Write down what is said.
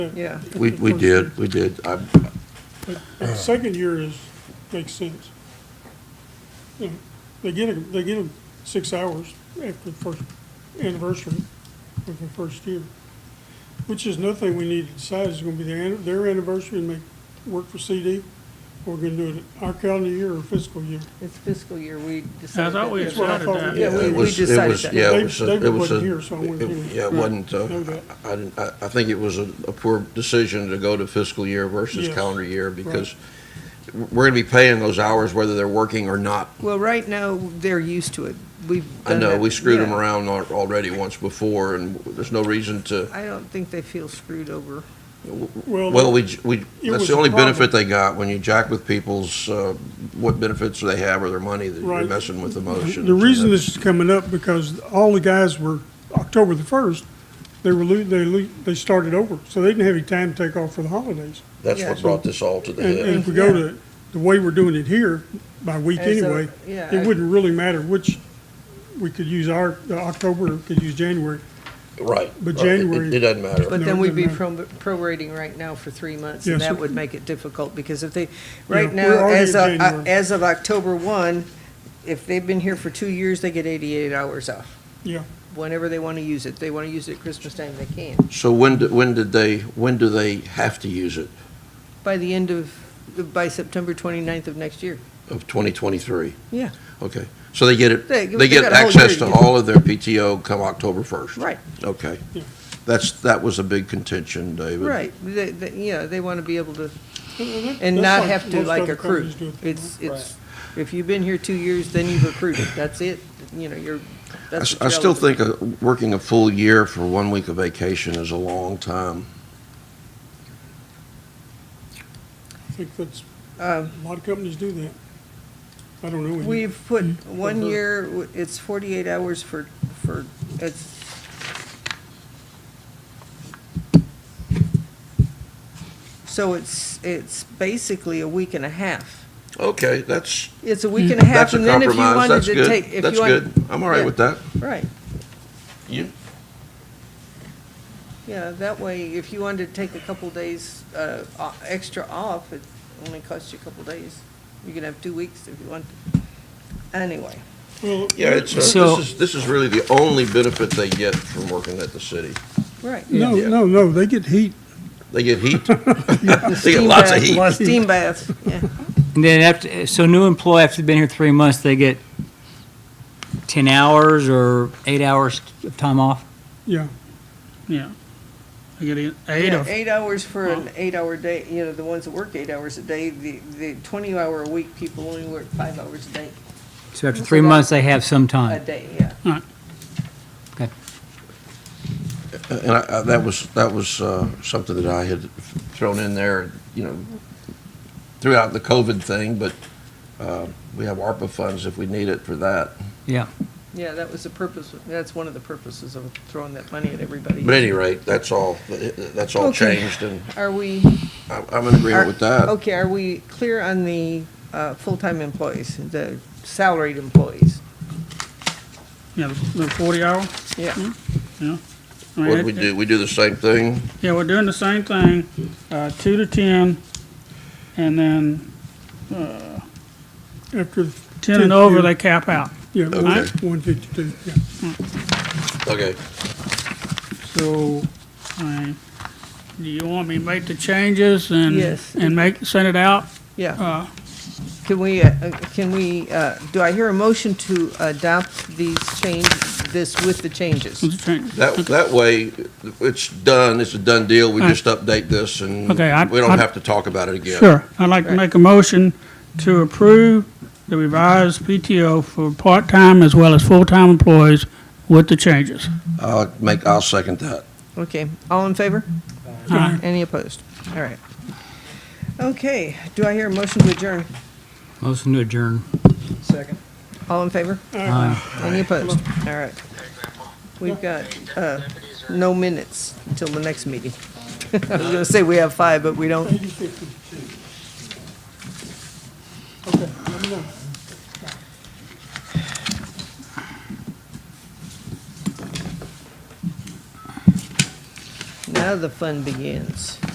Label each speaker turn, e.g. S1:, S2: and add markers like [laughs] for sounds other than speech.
S1: Yeah.
S2: We, we did, we did. I,
S3: But The second year is, makes sense. You know, They get, a- they get them six hours after the first anniversary of the first year, which is another thing we need to decide is gonna be their, anni- their anniversary and make, work for CD, or we're gonna do it our calendar year or fiscal year.
S1: It's fiscal year, we decided.
S4: I thought we
S1: that-
S3: That's what I
S4: decided
S3: thought
S4: that.
S3: we
S1: Yeah,
S3: did.
S1: we-
S2: it
S1: we
S2: was, it
S1: decided
S2: was,
S1: that.
S2: yeah,
S3: They-
S2: it was, a-
S3: they
S2: it was.
S3: wasn't
S2: a-
S3: here, so I wouldn't
S2: it-
S3: even
S2: Yeah, it wasn't, uh,
S3: know that.
S2: I, I didn't- I, I think it was a, a poor decision to go to fiscal year versus
S3: Yes.
S2: calendar year because we're gonna be paying those hours whether they're working or not.
S1: Well, right now, they're used to it. We've
S2: I
S1: done
S2: know,
S1: that-
S2: we screwed them
S1: yeah.
S2: around al- already once before and there's no reason to,
S1: I don't think they feel screwed over.
S2: well, we, j- we,
S3: It
S2: that's
S3: was
S2: the
S3: a
S2: only
S3: problem.
S2: benefit they got when you jack with people's, uh, what benefits do they have or their money that you're
S3: Right.
S2: messing with
S3: The-
S2: emotions.
S3: The
S2: and
S3: reason
S2: that's-
S3: this is coming up, because all the guys were, October the first, they were, lo- they, lo- they started over, so they didn't have any time to take off for the holidays.
S2: That's
S1: Yeah.
S2: what brought this all to the
S3: And, and if
S2: head.
S3: we go to, the way we're doing it here, by week
S1: As a-
S3: anyway,
S1: yeah,
S3: it
S1: I-
S3: wouldn't really matter which, we could use our, the October, or we could use January.
S2: Right.
S3: But
S2: right. It-
S3: January-
S2: It doesn't matter.
S1: But
S3: No,
S1: then
S3: it
S1: we'd be
S3: doesn't
S1: pro- prorating right now for three months,
S3: Yeah,
S1: and
S3: so-
S1: that would make it difficult, because if they, right
S3: Yeah, we're
S1: now,
S3: already
S1: as
S3: in
S1: of, uh,
S3: January.
S1: as of October one, if they've been here for two years, they get eighty-eight hours off,
S3: Yeah,
S1: whenever they want to use it. They want to use it Christmas time, they can.
S2: So when, do- when did they, when do they have to use it
S1: By the end of, by September 29th of next year.
S2: of 2023?
S1: Yeah.
S2: Okay, so they get it,
S1: They-
S2: they
S1: they
S2: get
S1: got a whole
S2: access
S1: year
S2: to
S1: to-
S2: all of their PTO come October 1st?
S1: Right.
S2: Okay.
S3: Yeah.
S2: That's, that was a big contention, David.
S1: Right, they, they, yeah, they want to be able to,
S3: And
S1: and
S3: that's
S1: not
S3: like
S1: have to
S3: most
S1: like
S3: other
S1: accrue.
S3: companies do it.
S1: It's, it's, if you've been here two years, then you've accrued it, that's it, you know, you're,
S2: I
S1: that's
S2: s-
S1: what
S2: I
S1: you're
S2: still
S1: eligible.
S2: think uh, working a full year for one week of vacation is a long time.
S3: I think that's, a
S1: Um,
S3: lot of companies do that. I don't know. any.
S1: We've put one
S2: Mm-hmm.
S3: Mhm.
S1: year, w- it's 48 hours for, for, it's, so it's, it's basically a week and a half.
S2: Okay, that's,
S1: It's a week and a half,
S2: Mm. that's a
S1: and then if you
S2: compromise,
S1: wanted to
S2: that's
S1: take, if
S2: good,
S1: you
S2: that's
S1: wanted-
S2: good. I'm all right
S1: Yeah.
S2: with that.
S1: Right.
S2: You?
S1: Yeah, that way, if you wanted to take a couple days uh, o- extra off, it only costs you a couple days. You can have two weeks if you want. Anyway,
S3: Well,
S2: Yeah, it's, uh, this
S4: So-
S2: is, this is really the only benefit they get from working at the city.
S1: right.
S3: No,
S2: Yeah.
S3: no, no, they get heat.
S2: They get [laughs] heat. They get lots of
S1: Steam
S2: heat.
S1: bath, [laughs] Steam bath, yeah.
S4: And then after, so new employee, after they've been here three months, they get 10 hours or eight hours of time off?
S3: Yeah,
S5: Yeah. I get eight, eight
S1: Yeah,
S5: of,
S1: Eight hours for an
S5: Well-
S1: eight-hour day, you know, the ones that work eight hours a day, the, the 20-hour-a-week people only work five hours a day,
S4: So after
S1: So
S4: three
S1: that-
S4: months, they have some
S1: a
S4: time?
S1: day, yeah.
S2: And I, I, that was, that was, uh, something that I had thrown in there, you know, throughout the COVID thing, but, uh, we have ARPA funds if we need it for that.
S4: Yeah.
S1: Yeah, that was the purpose, that's one of the purposes of throwing that money at everybody.
S2: But at any rate, that's all, that's all
S1: Okay.
S2: changed and
S1: Are we?
S2: I'm, I'm in agreement
S1: Are-
S2: with that.
S1: Okay, are we clear on the uh, full-time employees, the salaried employees?
S5: yeah, the the forty hour,
S1: Yeah.
S5: yeah. I mean,
S2: What do we
S5: it-
S2: do? We do the same thing?
S5: Yeah, we're doing the same thing, uh, two to ten, and then
S3: after.
S5: ten
S3: 10th
S5: and over,
S3: year,
S5: they cap out.
S3: Yeah,
S2: Okay.
S3: one fifty-two, yeah.
S2: Okay.
S5: So, I mean, do you want me to make the changes and?
S1: Yes.
S5: And make, send it out?
S1: Yeah,
S5: Uh,
S1: can we, uh, can we, uh, do I hear a motion to adopt these change, this with the changes?
S5: with the changes.
S2: That, that way, it's done, it's a done deal, we
S5: All right.
S2: just update this and we
S5: Okay, I-
S2: don't
S5: I-
S2: have to talk about it again.
S5: Sure, I'd like to make a motion to approve the revised PTO for part-time as well as full-time employees with the changes.
S2: I'll make, I'll second that.
S1: Okay, all in favor?
S5: Aye.
S1: Any opposed? All right. Okay, do I hear a motion to adjourn?
S4: Motion to adjourn.
S1: All in favor? Any opposed? All right. We've got uh, no minutes until the next meeting. [laughs] I was going to say we have five, but we don't.
S3: Eighty fifty-two. Okay, let me know.
S1: Now now the fun begins.